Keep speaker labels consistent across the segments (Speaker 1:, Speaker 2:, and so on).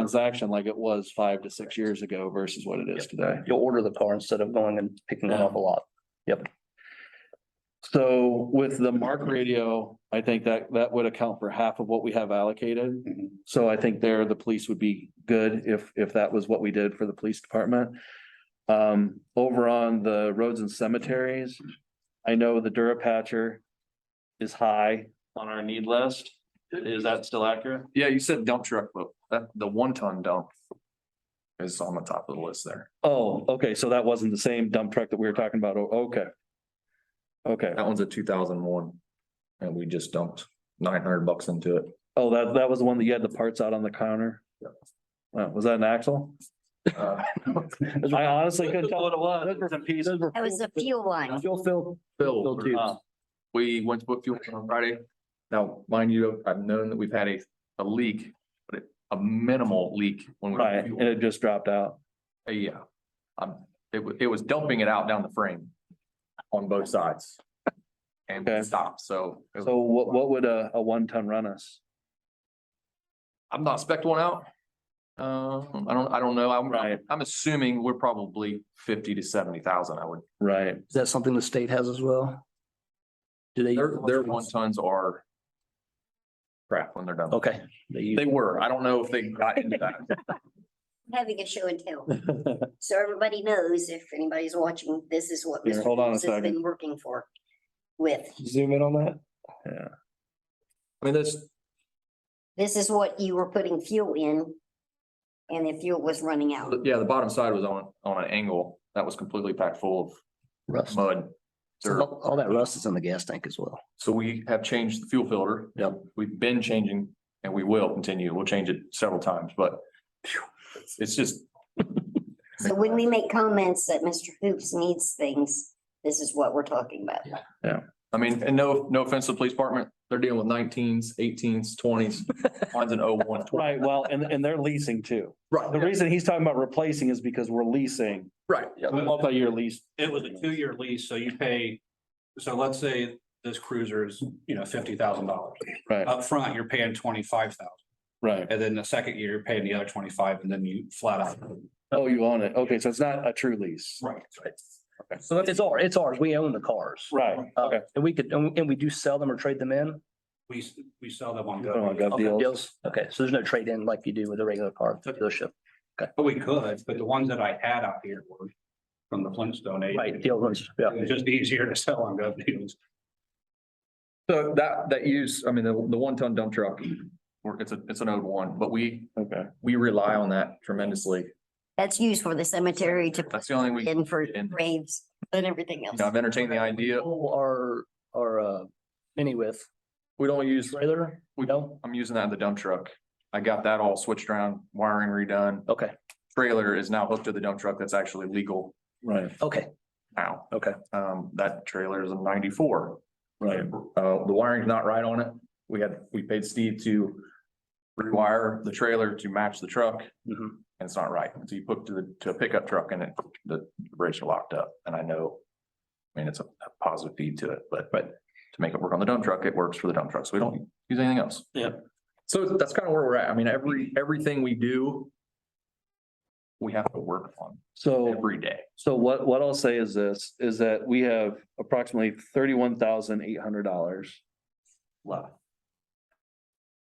Speaker 1: transaction like it was five to six years ago versus what it is today.
Speaker 2: You'll order the car instead of going and picking it up a lot.
Speaker 1: So with the Mark radio, I think that that would account for half of what we have allocated.
Speaker 2: Mhm.
Speaker 1: So I think there, the police would be good if if that was what we did for the police department. Um, over on the roads and cemeteries, I know the Durapatcher is high on our need list. Is that still accurate?
Speaker 3: Yeah, you said dump truck, but that, the one ton dump. Is on the top of the list there.
Speaker 1: Oh, okay, so that wasn't the same dump truck that we were talking about. Oh, Okay. Okay,
Speaker 3: That one's a two thousand one. And we just dumped nine hundred bucks into it.
Speaker 1: oh, that that was the one that you had the parts out on the counter? Uh, was that an axle?
Speaker 3: Uh,
Speaker 1: I honestly couldn't tell what it was. Those were some pieces.
Speaker 4: That was the fuel one.
Speaker 2: You'll fill.
Speaker 3: Bill,
Speaker 2: tubes.
Speaker 3: uh, we went to put fuel in on Friday. Now, mind you, I've known that we've had a, a leak, but it- a minimal leak when we.
Speaker 1: Right, and it just dropped out.
Speaker 3: Uh, Yeah. Um, it was, it was dumping it out down the frame on both sides. And
Speaker 1: Okay.
Speaker 3: it stopped, so it was-
Speaker 1: So what what would a a one ton run us?
Speaker 3: I'm not spec one out. Um, I don't, I don't know. I'm,
Speaker 1: Right.
Speaker 3: I'm assuming we're probably fifty to seventy thousand, I would.
Speaker 1: Right,
Speaker 2: Is that something the state has as well? Do they?
Speaker 3: Their, their one tons are crap when they're done.
Speaker 2: Okay.
Speaker 3: Oh, They were. I don't know if they got into that.
Speaker 4: Having a show and tell. So everybody knows if anybody's watching, this is what
Speaker 1: Here,
Speaker 4: Mr.
Speaker 1: hold on a
Speaker 4: Jones has
Speaker 1: second.
Speaker 4: been working for with.
Speaker 2: Zoom in on that?
Speaker 3: I mean, that's,
Speaker 4: This is what you were putting fuel in and the fuel was running out.
Speaker 3: yeah, the bottom side was on, on an angle that was completely packed full of
Speaker 2: Rust.
Speaker 3: mud. dirt.
Speaker 2: All all that rust is in the gas tank as well.
Speaker 3: So we have changed the fuel filter.
Speaker 2: Yep.
Speaker 3: We've been changing and we will continue. We'll change it several times, but phew, it's- it's just,
Speaker 4: So when we make comments that Mr. Hoops needs things, this is what we're talking about.
Speaker 3: I mean, and no, no offense to the police department. They're dealing with nineteens, eighteens, twenties. Mine's an oh one.
Speaker 1: right, well, and and they're leasing too. The
Speaker 3: Right,
Speaker 1: reason he's talking about replacing is because we're leasing,
Speaker 3: right. yeah.
Speaker 1: multi-year lease.
Speaker 5: It was a two-year lease, so you pay, so let's say this cruiser is, you know, fifty thousand dollars.
Speaker 1: Right,
Speaker 5: Up front, you're paying twenty-five thousand,
Speaker 1: right.
Speaker 5: and then the second year, you're paying the other twenty-five, and then you flat out.
Speaker 1: Oh, you own it. Okay, so it's not a true lease.
Speaker 5: Right.
Speaker 2: So it's ours, it's ours. We own the cars.
Speaker 1: Right,
Speaker 2: Uh,
Speaker 1: okay.
Speaker 2: And we could, and we- and we do sell them or trade them in?
Speaker 5: We, s- we sell them on.
Speaker 1: Oh,
Speaker 5: Go.
Speaker 1: gov
Speaker 2: Okay,
Speaker 1: deals.
Speaker 2: deals. Okay, so there's no trade in like you do with a regular car at the dealership.
Speaker 5: But we could, but the ones that I had out here were from the Flintstone age.
Speaker 2: Right, deal ones, yeah.
Speaker 5: It's just easier to sell on gov deals.
Speaker 3: So that, that use, I mean, the, the one ton dump truck, we're- it's a, it's an old one, but we,
Speaker 1: Okay,
Speaker 3: we rely on that tremendously.
Speaker 4: That's used for the cemetery to put
Speaker 3: That's the only thing we, you
Speaker 4: in for
Speaker 3: in.
Speaker 4: graves and everything else.
Speaker 3: know, I've entertained the idea.
Speaker 2: Pull Our, our, uh, mini with
Speaker 3: We don't use,
Speaker 2: trailer?
Speaker 3: we
Speaker 2: No?
Speaker 3: I'm using that in the dump truck. I got that all switched around, wiring redone.
Speaker 2: Okay,
Speaker 3: Trailer is now hooked to the dump truck that's actually legal
Speaker 1: right,
Speaker 2: okay,
Speaker 3: now.
Speaker 2: okay.
Speaker 3: Um, that trailer is a ninety-four.
Speaker 1: right.
Speaker 3: Uh, the wiring's not right on it. We had, we paid Steve to rewire the trailer to match the truck.
Speaker 2: Mhm.
Speaker 3: And it's not right. So you hook to the, to a pickup truck and it, the brakes are locked up and I know. I mean, it's a a positive feed to it, but, but to make it work on the dump truck, it works for the dump truck. So we don't use anything else.
Speaker 5: Yeah.
Speaker 3: So that's kind of where we're at. I mean, every, everything we do. We have to work on
Speaker 1: So
Speaker 3: every day.
Speaker 1: So what, what I'll say is this, is that we have approximately thirty-one thousand eight hundred dollars. left.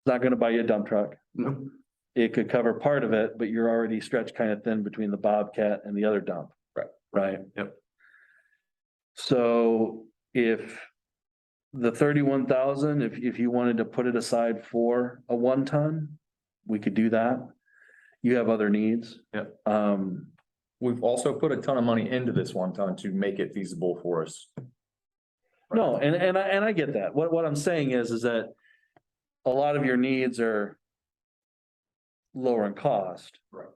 Speaker 1: Not gonna buy you a dump truck.
Speaker 2: No.
Speaker 1: It could cover part of it, but you're already stretched kind of thin between the Bobcat and the other dump.
Speaker 3: Right.
Speaker 1: Right?
Speaker 3: Yep.
Speaker 1: So if the thirty-one thousand, if, if you wanted to put it aside for a one-ton, we could do that. You have other needs.
Speaker 3: Yep.
Speaker 1: Um,
Speaker 3: We've also put a ton of money into this one time to make it feasible for us.
Speaker 1: No, and, and I, and I get that. What, what I'm saying is, is that a lot of your needs are lower in cost.
Speaker 3: Right.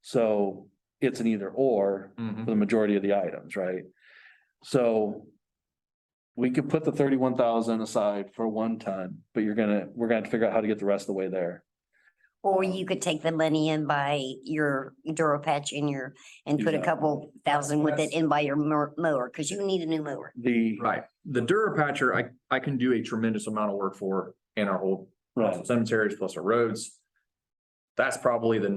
Speaker 1: So it's an either or
Speaker 3: Mhm.
Speaker 1: for the majority of the items, right? So we could put the thirty-one thousand aside for one ton, but you're gonna, we're gonna have to figure out how to get the rest of the way there.
Speaker 4: Or you could take the money and buy your Duro patch in your, and put a
Speaker 1: Exactly.
Speaker 4: couple thousand with it in by your mo- mower, because you need a new mower.
Speaker 1: The,
Speaker 3: Right, the Durapatcher, I, I can do a tremendous amount of work for in our whole
Speaker 1: right,
Speaker 3: cemeteries plus our roads. That's probably the